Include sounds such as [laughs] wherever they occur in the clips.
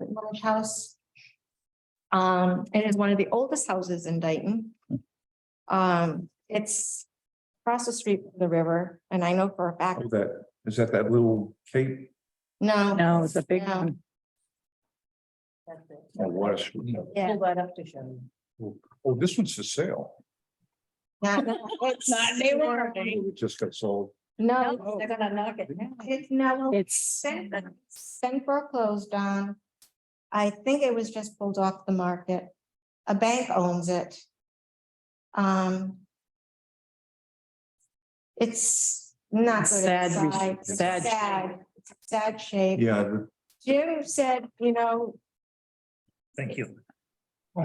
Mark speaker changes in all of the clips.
Speaker 1: large house. Um, it is one of the oldest houses in Dayton. Um, it's across the street from the river, and I know for a fact,
Speaker 2: Oh, That, is that that little cape
Speaker 1: no.
Speaker 3: No, it's a big
Speaker 1: No.
Speaker 3: one.
Speaker 4: Oh,
Speaker 2: or what?
Speaker 1: Yeah.
Speaker 3: that up to show
Speaker 2: Oh, this one's for sale.
Speaker 1: not- it's-
Speaker 3: [laughs] Not anymore.
Speaker 2: It just got sold.
Speaker 1: No,
Speaker 3: They're gonna knock it down.
Speaker 1: it's no,
Speaker 3: It's,
Speaker 1: sent, sent foreclosed on. I think it was just pulled off the market. A bank owns it. Um. It's not.
Speaker 3: It's
Speaker 1: good
Speaker 3: sad re-
Speaker 1: inside. It's
Speaker 3: sad shape.
Speaker 1: Sad, It's a sad shape.
Speaker 2: Yeah. the-
Speaker 1: Jim said, you know,
Speaker 4: Thank you.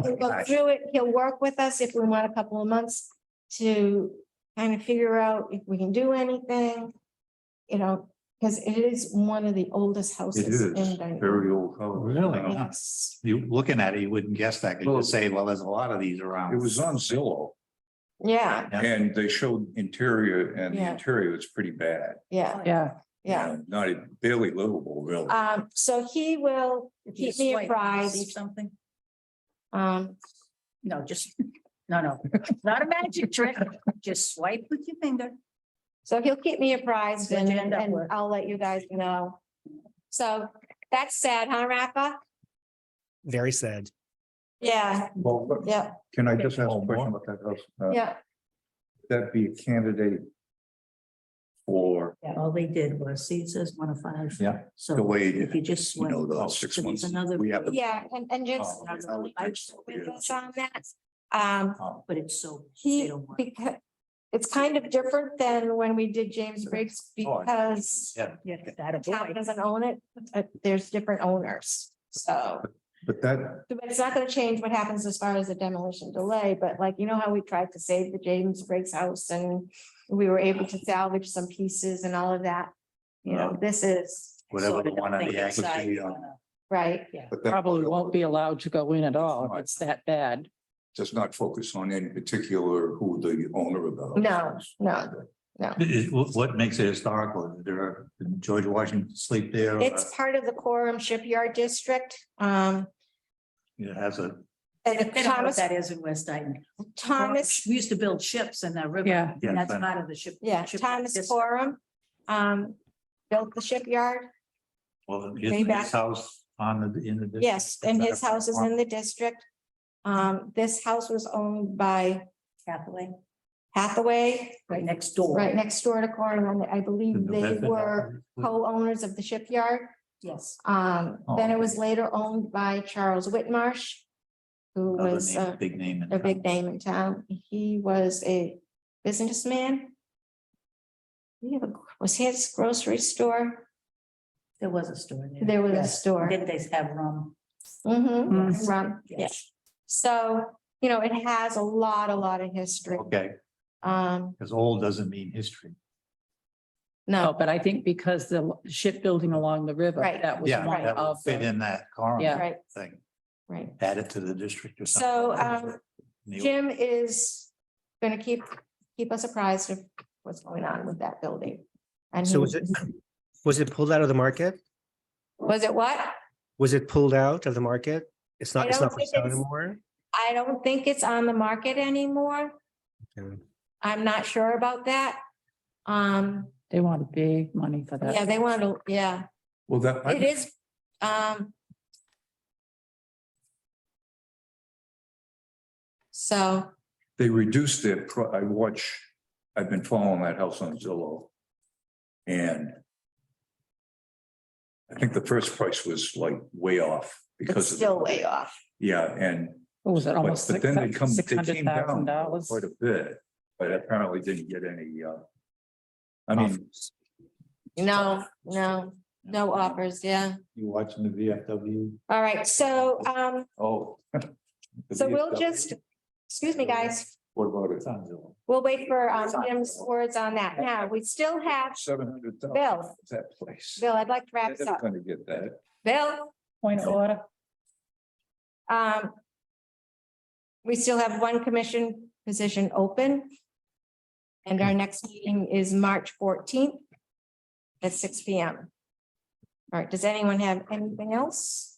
Speaker 1: he'll go through it, he'll work with us if we want a couple of months to kind of figure out if we can do anything. You know, because it is one of the oldest
Speaker 2: It
Speaker 1: houses. in
Speaker 2: is
Speaker 1: Dayton.
Speaker 2: very old. Uh, house.
Speaker 4: Really?
Speaker 2: Wow.
Speaker 1: Yes.
Speaker 4: You, looking at it, you wouldn't guess that, 'cause
Speaker 2: Well-
Speaker 4: you'd say, well, there's a lot of these around.
Speaker 2: It was on Zillow
Speaker 1: Yeah,
Speaker 4: Yeah.
Speaker 2: and they showed interior and the
Speaker 1: Yeah.
Speaker 2: interior was pretty bad.
Speaker 1: yeah,
Speaker 3: yeah.
Speaker 1: yeah.
Speaker 2: And Not barely livable, really.
Speaker 1: Um, so he will keep me apprised.
Speaker 3: Something?
Speaker 1: Um,
Speaker 3: No, just, [laughs] no, no, not a magic trick. Just swipe with your finger.
Speaker 1: so he'll keep me apprised
Speaker 3: What'd
Speaker 1: and,
Speaker 3: you end up
Speaker 1: and
Speaker 3: with?
Speaker 1: I'll let you guys know. So that's sad, huh, Rafa?
Speaker 5: Very sad.
Speaker 1: Yeah,
Speaker 2: Well, but
Speaker 1: yeah,
Speaker 2: can I just ask a
Speaker 4: Oh,
Speaker 2: question
Speaker 4: more?
Speaker 2: about that house? Uh,
Speaker 1: yeah.
Speaker 2: That be a candidate for,
Speaker 3: All they did was Caesar's one of five.
Speaker 4: Yeah.
Speaker 3: So
Speaker 4: The way,
Speaker 3: if you just
Speaker 4: you
Speaker 3: swipe.
Speaker 4: know, the
Speaker 2: Oh,
Speaker 4: six
Speaker 2: so there's
Speaker 4: months,
Speaker 3: another- [laughs]
Speaker 4: we have. the-
Speaker 1: Yeah, and, and just.
Speaker 4: Oh, yeah, I would think so, yeah.
Speaker 1: with us on that. Um,
Speaker 4: Oh,
Speaker 3: But it's so. they
Speaker 1: he,
Speaker 3: don't want-
Speaker 1: because it's kind of different than when we did James Briggs
Speaker 4: Oh, I-
Speaker 1: because
Speaker 4: Yeah.
Speaker 3: Yeah, that a
Speaker 1: town
Speaker 3: boy.
Speaker 1: doesn't own it, uh, there's different owners, so.
Speaker 2: but that,
Speaker 1: But it's not gonna change what happens as far as the demolition delay, but like, you know how we tried to save the James Briggs house and we were able to salvage some pieces and all of that. You know, this is,
Speaker 3: So
Speaker 4: Whatever
Speaker 3: they
Speaker 4: the
Speaker 3: don't
Speaker 4: one on
Speaker 3: think
Speaker 4: the
Speaker 3: it's
Speaker 4: exit,
Speaker 3: side,
Speaker 4: you know,
Speaker 3: uh,
Speaker 1: right,
Speaker 2: but that
Speaker 6: probably won't be allowed to go in at
Speaker 1: Oh,
Speaker 6: all.
Speaker 2: Right.
Speaker 6: It's that bad.
Speaker 2: does not focus on any particular who the owner of the house
Speaker 1: No,
Speaker 2: is.
Speaker 1: no.
Speaker 4: It- it- what- What makes it historical? Did There, did George Washington sleep there. uh,
Speaker 1: It's part of the Quorum Shipyard District, um,
Speaker 4: It has a,
Speaker 1: and
Speaker 3: They don't know what
Speaker 1: Thomas,
Speaker 3: that is in West Dayton.
Speaker 1: Thomas,
Speaker 3: We used to build ships in the river.
Speaker 6: Yeah.
Speaker 4: Yeah,
Speaker 3: And that's
Speaker 4: but-
Speaker 3: part of the ship.
Speaker 1: yeah,
Speaker 3: ship
Speaker 1: Thomas
Speaker 3: district.
Speaker 1: Quorum, um, built the shipyard.
Speaker 4: well, his
Speaker 1: Way back.
Speaker 4: his house on the, in the. district.
Speaker 1: Yes, and his house is in the district. Um, this house was owned by
Speaker 3: Hathaway,
Speaker 1: Hathaway,
Speaker 3: right next door.
Speaker 1: right next door to Quorum, and I believe
Speaker 4: The
Speaker 1: they
Speaker 4: method-
Speaker 1: were co-owners of the shipyard.
Speaker 3: Yes.
Speaker 1: Um, then it was
Speaker 4: Oh.
Speaker 1: later owned by Charles Whitmarsh, who
Speaker 4: Another
Speaker 1: was
Speaker 4: name,
Speaker 1: a,
Speaker 4: uh, Big name. in
Speaker 1: a
Speaker 4: town.
Speaker 1: big name in town. He was a businessman. He had a- was his grocery store.
Speaker 3: There was a store. there.
Speaker 1: There was a
Speaker 3: Yes.
Speaker 1: store.
Speaker 3: Did they have rum?
Speaker 1: Mm-hmm,
Speaker 3: Yes.
Speaker 1: rum, yeah. So, you know, it has a lot, a lot of history.
Speaker 6: Oh,
Speaker 4: Okay,
Speaker 1: Um,
Speaker 4: because old doesn't mean history.
Speaker 6: No,
Speaker 1: no,
Speaker 6: Oh, but I think because the shipbuilding along the river,
Speaker 1: Right.
Speaker 6: that was
Speaker 4: Yeah,
Speaker 6: one
Speaker 4: that would
Speaker 6: of
Speaker 4: fit
Speaker 6: the.
Speaker 4: in that car
Speaker 6: Yeah.
Speaker 1: right,
Speaker 4: thing,
Speaker 1: right.
Speaker 4: add it to the district or something.
Speaker 1: So, um,
Speaker 4: In the old-
Speaker 1: Jim is gonna keep, keep us apprised of what's going on with that building. And he-
Speaker 5: So was it, was it pulled out of the market?
Speaker 1: [laughs] Was it what?
Speaker 5: Was it pulled out of the market? It's
Speaker 1: I
Speaker 5: not, it's
Speaker 1: don't
Speaker 5: not for
Speaker 1: think
Speaker 5: sale
Speaker 1: it's-
Speaker 5: anymore?
Speaker 1: I don't think it's on the market anymore.
Speaker 5: Okay.
Speaker 1: I'm not sure about that. Um,
Speaker 6: They want big money for that.
Speaker 1: yeah, they want to, yeah,
Speaker 2: Well, that.
Speaker 1: it is, um. So,
Speaker 2: they reduced their, pro- I watch, I've been following that house on Zillow. And I think the first price was like way off
Speaker 1: it's
Speaker 2: because of.
Speaker 1: still way off.
Speaker 2: Yeah, and,
Speaker 6: What was it,
Speaker 2: but
Speaker 6: almost
Speaker 2: but then they come,
Speaker 6: six
Speaker 2: they
Speaker 6: hundred
Speaker 2: came down
Speaker 6: thousand dollars?
Speaker 2: quite a bit, but apparently didn't get any, uh, I mean,
Speaker 1: No, no, no offers, yeah.
Speaker 4: You watching the VFW?
Speaker 1: All right, so, um,
Speaker 2: oh. [laughs] the
Speaker 1: so we'll
Speaker 2: VFW,
Speaker 1: just, excuse me, guys,
Speaker 2: What about
Speaker 4: It's
Speaker 2: it?
Speaker 4: on Zillow.
Speaker 1: we'll wait for um, Jim's words on that. Now, we still have,
Speaker 2: Seven hundred thousand.
Speaker 1: Bill.
Speaker 2: That place.
Speaker 1: Bill, I'd like to wrap
Speaker 2: They're
Speaker 1: this up.
Speaker 2: never gonna get that.
Speaker 1: Bill?
Speaker 6: Point of order.
Speaker 1: Um. We still have one commission position open. And our next meeting is March fourteenth at six P M. All right, does anyone have anything else?